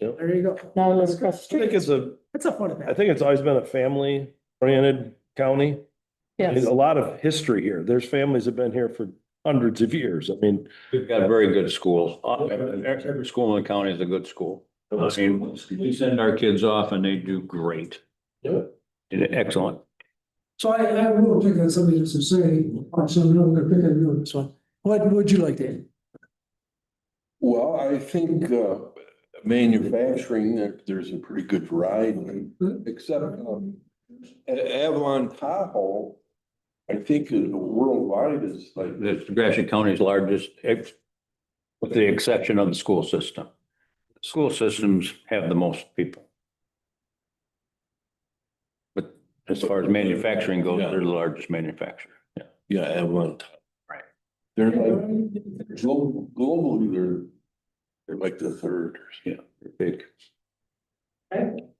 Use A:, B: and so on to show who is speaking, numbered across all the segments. A: Yep.
B: There you go.
C: Now I live across the
A: I think
C: street.
A: it's a,
B: That's a fun
A: I
B: fact.
A: think it's always been a family oriented county. There's
C: Yes,
A: a lot of history here. There's families that have been here for hundreds of years. I mean.
D: We've got very good schools. Uh, Every every school in the county is a good school. I mean, we send our kids off and they do great. Did Excellent.
B: So I, I will pick on something just to say, I'm so I'm gonna pick on you on this one. What would you like to add?
E: Well, I think uh, manufacturing, there- there's a pretty good variety, except um, A- Avalon Tahoe, I think is worldwide is like,
D: This Gratiot County's largest, ex- with the exception of the school system. School systems have the most people. But as far as manufacturing goes, they're the largest manufacturer. Yeah.
E: yeah, Avalon. Tahoe.
D: Right.
E: They're like, glo- globally, they're, they're like the third.
D: Big.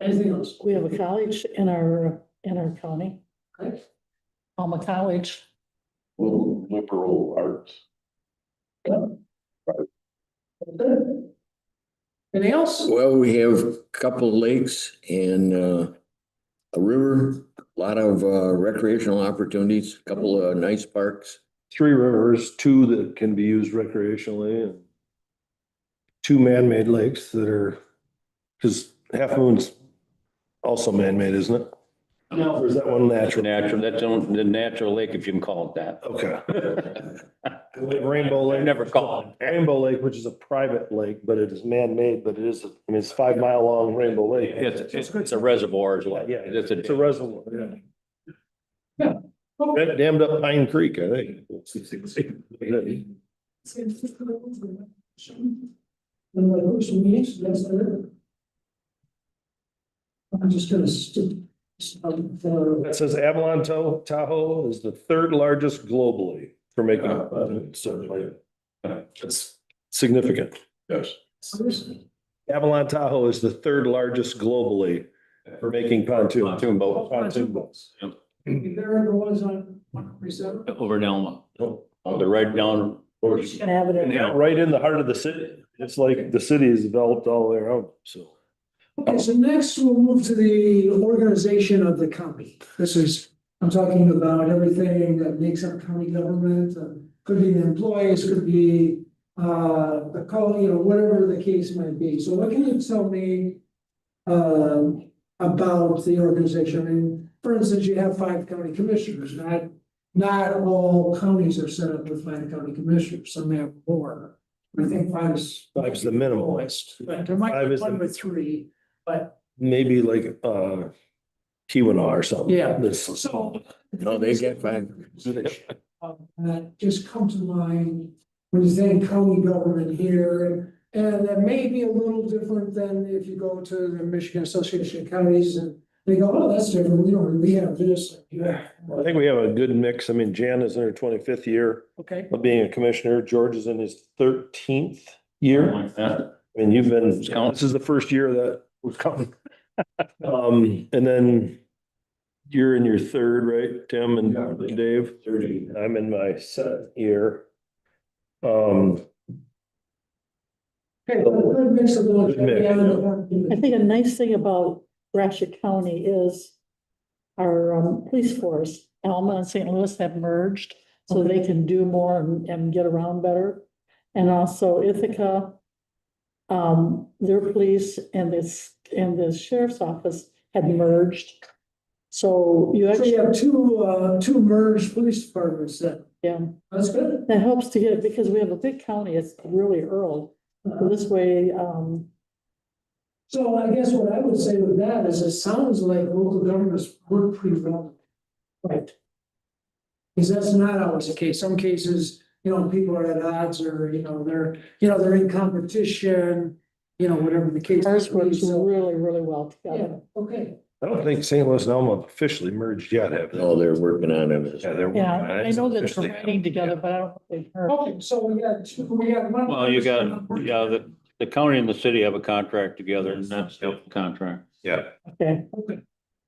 B: Anything else?
C: we have a college in our, in our county,
B: Okay.
C: Alma College.
E: Little liberal arts.
B: Anything else?
F: Well, we have a couple lakes and uh, a river, a lot of uh, recreational opportunities, a couple of nice parks.
A: Three rivers, two that can be used recreationally and. Two man-made lakes that are, because Half Moon's also man-made, isn't it?
B: No.
A: Or is that one
D: That's
A: natural?
D: natural, that's the only- the natural lake, if you can call it that.
A: Okay. Rainbow
D: I've
A: Lake.
D: Never called it.
A: Rainbow Lake, which is a private lake, but it is man-made, but it is, I mean, it's five mile long Rainbow Lake.
D: It's, it's- it's a reservoir as well.
A: Yeah,
D: It's a-
A: it's a reservoir, yeah.
B: Yeah.
A: That dammed up Pine Creek, I think.
B: One of my first meetings, that's the. I'm just gonna stick. um, uh,
A: That says Avalon To- Tahoe is the third largest globally for making,
E: Uh,
A: a- so like, it's significant.
E: Yes.
B: seriously.
A: Avalon Tahoe is the third largest globally for making pontoons.
D: Pontoon boat
B: Pontoon boats.
D: Yep.
B: If there ever was on one forty-seven.
D: over in Elma. Oh, They're right down.
C: She's gonna have it in
D: Yeah.
A: Right in the heart of the city. It's like the city is developed all the way around, so.
B: Okay, so next we'll move to the organization of the county. This is, I'm talking about everything that makes up county government. uh, Could be the employees, could be uh, the call, you know, whatever the case might be. So what can you tell me um, about the organization? I mean, for instance, you have five county commissioners, not, not all counties are set up with five county commissioners. Some have more. I think five is.
A: Five's the minimal.
B: lowest, But there might
A: Five
B: be
A: is the-
B: one with three, but
A: maybe like uh Keweenaw or something.
B: Yeah.
A: This,
B: So.
F: No, they get five.
B: Um, That just come to mind when you think county government here. And that may be a little different than if you go to the Michigan Association of Counties and they go, oh, that's different. We don't, we have this.
A: I think we have a good mix. I mean, Jan is in her twenty-fifth year
B: Okay.
A: of being a commissioner. George is in his thirteenth year.
D: Yeah.
A: And you've been,
D: Who's counting?
A: this is the first year that was coming. Um, and then you're in your third, right, Tim and Dave?
E: Thirty.
A: I'm in my seventh year. Um,
B: Okay, but a good mix of those.
A: Good mix,
B: Yeah,
C: I think a nice thing about Gratiot County is our um, police force, Alma and St. Louis have merged, so they can do more and, and get around better. And also Ithaca, um, their police and this, and the sheriff's office had merged. So you
B: So you
C: actually,
B: have two, uh, two merged police departments then.
C: yeah,
B: That's good.
C: that helps to get, because we have a big county, it's really rural. So This way, um,
B: So I guess what I would say with that is it sounds like local governments work pretty well.
C: right,
B: Because that's not always the case. Some cases, you know, people are at odds or, you know, they're, you know, they're in competition, you know, whatever the case.
C: ours works
B: So-
C: really, really well
B: Yeah,
C: together.
B: okay.
A: I don't think St. Louis and Elma officially merged yet, have they?
F: No, they're working on it.
A: Yeah, they're. working
C: Yeah,
A: on it.
C: I know that
A: Officially,
C: they're writing together, but I don't know if they've heard.
B: Okay, so we got, two- we got one.
D: Well, you got, yeah, the, the county and the city have a contract together and that's the contract.
A: Yeah.
C: Okay,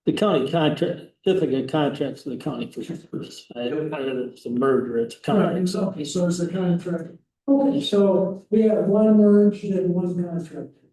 G: The county contract, Ithaca contracts to the county for service. I don't know if it's a merger, it's a
B: Right,
G: contract.
B: exactly. So it's a contract. Okay, so we have one merged and one contract.